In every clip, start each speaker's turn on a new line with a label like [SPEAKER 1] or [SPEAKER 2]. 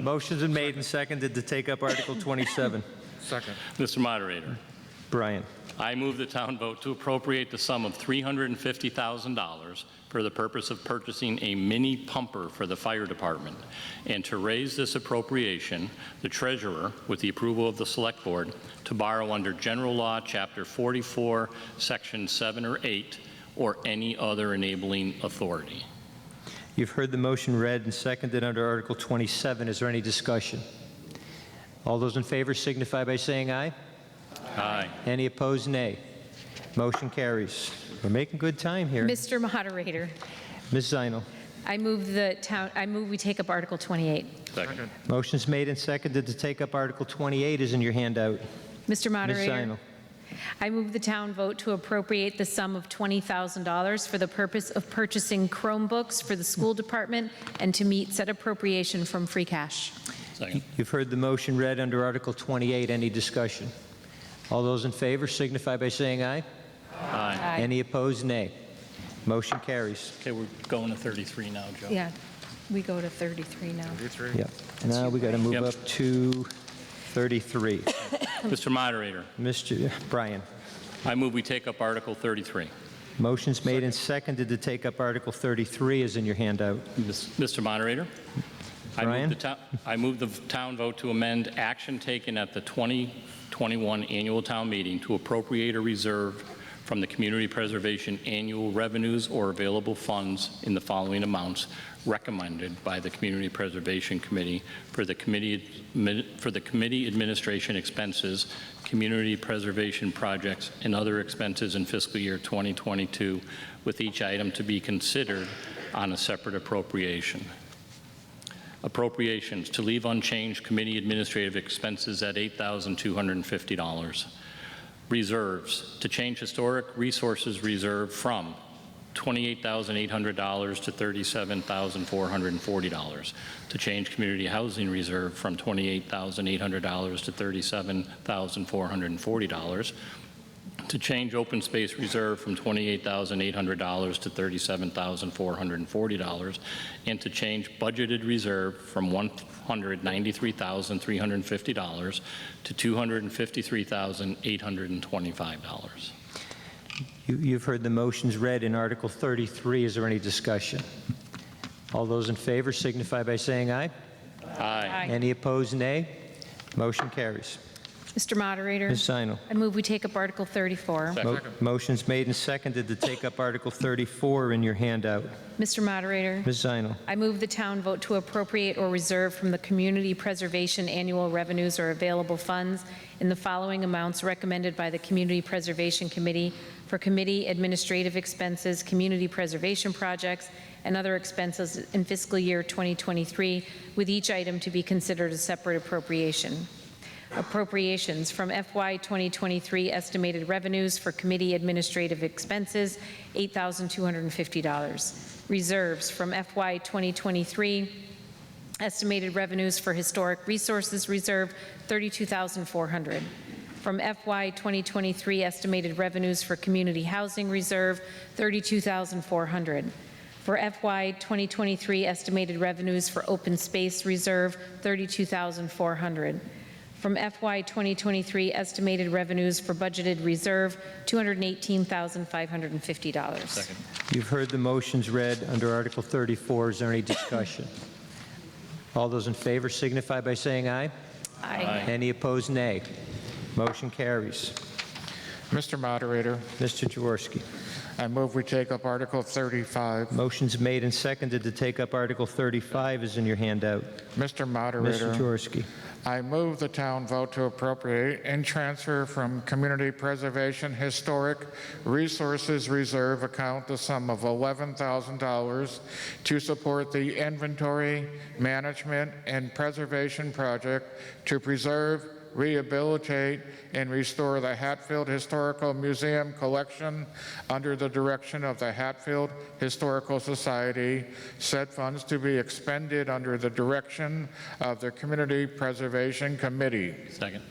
[SPEAKER 1] Motion's been made and seconded to take up Article 27.
[SPEAKER 2] Second.
[SPEAKER 3] Mr. Moderator,
[SPEAKER 1] Brian,
[SPEAKER 3] I move the town vote to appropriate the sum of $350,000 for the purpose of purchasing a mini pumper for the fire department, and to raise this appropriation, the treasurer, with the approval of the select board, to borrow under general law, Chapter 44, Section 7 or 8, or any other enabling authority.
[SPEAKER 1] you've heard the motion read and seconded under Article 27. Is there any discussion? All those in favor signify by saying aye.
[SPEAKER 3] Aye.
[SPEAKER 1] Any opposed, nay. Motion carries. We're making good time here. Ms.
[SPEAKER 4] Mr. Moderator,
[SPEAKER 1] Zinal,
[SPEAKER 4] I move the town, I move we take up Article 28.
[SPEAKER 3] Second.
[SPEAKER 1] motion's made and seconded to take up Article 28 is in your handout.
[SPEAKER 4] Mr.
[SPEAKER 1] Ms.
[SPEAKER 4] Moderator,
[SPEAKER 1] Zinal,
[SPEAKER 4] I move the town vote to appropriate the sum of $20,000 for the purpose of purchasing Chromebooks for the school department and to meet said appropriation from free cash.
[SPEAKER 3] Second.
[SPEAKER 1] you've heard the motion read under Article 28. Any discussion? All those in favor signify by saying aye.
[SPEAKER 3] Aye.
[SPEAKER 1] Any opposed, nay. Motion carries.
[SPEAKER 3] Okay, we're going to 33 now, Joe.
[SPEAKER 4] Yeah, we go to 33 now.
[SPEAKER 1] Yep. Now we got to move
[SPEAKER 3] Yep.
[SPEAKER 1] up to 33.
[SPEAKER 3] Mr. Moderator,
[SPEAKER 1] Mr. Brian,
[SPEAKER 3] I move we take up Article 33.
[SPEAKER 1] motion's made and seconded to take up Article 33 is in your handout.
[SPEAKER 3] Mis- Mr. Moderator? I move
[SPEAKER 1] Brian?
[SPEAKER 3] the to- I move the town vote to amend action taken at the 2021 annual town meeting to appropriate a reserve from the community preservation annual revenues or available funds in the following amounts recommended by the Community Preservation Committee for the committee, admi- for the committee administration expenses, community preservation projects, and other expenses in fiscal year 2022, with each item to be considered on a separate appropriation. Appropriations, to leave unchanged committee administrative expenses at $8,250. Reserves, to change historic resources reserve from $28,800 to $37,440. To change community housing reserve from $28,800 to $37,440 to change open space reserve from $28,800 to $37,440, and to change budgeted reserve from $193,350 to $253,825.
[SPEAKER 1] You- You've heard the motions read in Article 33. Is there any discussion? All those in favor signify by saying aye.
[SPEAKER 3] Aye.
[SPEAKER 1] Any opposed, nay. Motion carries.
[SPEAKER 4] Mr. Moderator,
[SPEAKER 1] Ms. Zinal.
[SPEAKER 4] I move we take up Article 34.
[SPEAKER 3] Second.
[SPEAKER 1] mo- Motion's made and seconded to take up Article 34 in your handout.
[SPEAKER 4] Mr. Moderator,
[SPEAKER 1] Ms. Zinal.
[SPEAKER 4] I move the town vote to appropriate or reserve from the community preservation annual revenues or available funds in the following amounts recommended by the Community Preservation Committee for committee administrative expenses, community preservation projects, and other expenses in fiscal year 2023, with each item to be considered a separate appropriation. Appropriations from FY 2023 estimated revenues for committee administrative expenses, $8,250. Reserves from FY 2023 estimated revenues for historic resources reserve, $32,400. From FY 2023 estimated revenues for community housing reserve, $32,400. For FY 2023 estimated revenues for open space reserve, $32,400. From FY 2023 estimated revenues for budgeted reserve, $218,550.
[SPEAKER 1] You've heard the motions read under Article 34. Is there any discussion? All those in favor signify by saying aye.
[SPEAKER 4] Aye.
[SPEAKER 1] Any opposed, nay. Motion carries.
[SPEAKER 2] Mr. Moderator,
[SPEAKER 1] Mr. Jaworski.
[SPEAKER 2] I move we take up Article 35.
[SPEAKER 1] Motion's made and seconded to take up Article 35 is in your handout.
[SPEAKER 2] Mr.
[SPEAKER 1] Mr.
[SPEAKER 2] Moderator,
[SPEAKER 1] Jaworski.
[SPEAKER 2] I move the town vote to appropriate and transfer from Community Preservation Historic Resources Reserve account the sum of $11,000 to support the inventory, management, and preservation project to preserve, rehabilitate, and restore the Hatfield Historical Museum collection under the direction of the Hatfield Historical Society, said funds to be expended under the direction of the Community Preservation Committee.
[SPEAKER 3] Second.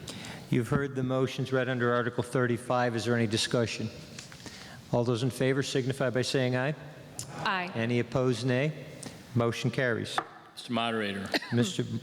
[SPEAKER 1] You've heard the motions read under Article 35. Is there any discussion? All those in favor signify by saying aye.
[SPEAKER 4] Aye.
[SPEAKER 1] Any opposed, nay. Motion carries.
[SPEAKER 3] Mr. Moderator,
[SPEAKER 1] Mr.